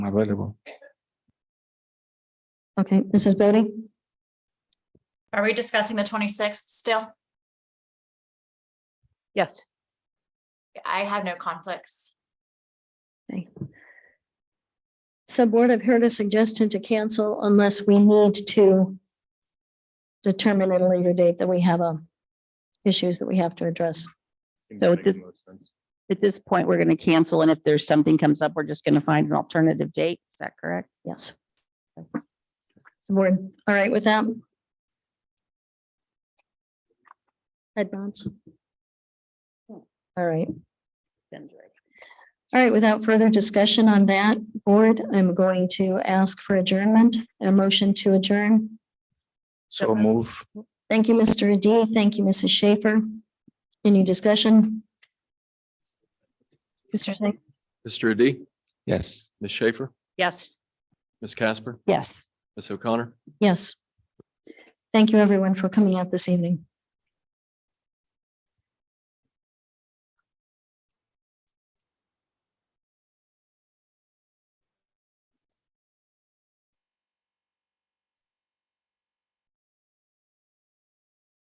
available. Okay, Mrs. Bodie? Are we discussing the twenty-sixth still? Yes. I have no conflicts. So board, I've heard a suggestion to cancel unless we need to determine at a later date that we have um issues that we have to address. So this- At this point, we're going to cancel, and if there's something comes up, we're just going to find an alternative date. Is that correct? Yes. Is The board, all right with that? Head nods. All right. Then direct. All right, without further discussion on that, board, I'm going to ask for adjournment, a motion to adjourn. So move. Thank you, Mr. Adi. Thank you, Mrs. Schaefer. Any discussion? Mr. Singh? Mr. Adi, Yes. Ms. Schaefer, Yes. Ms. Casper, Yes. Ms. O'Connor. Yes. Thank you, everyone, for coming out this evening.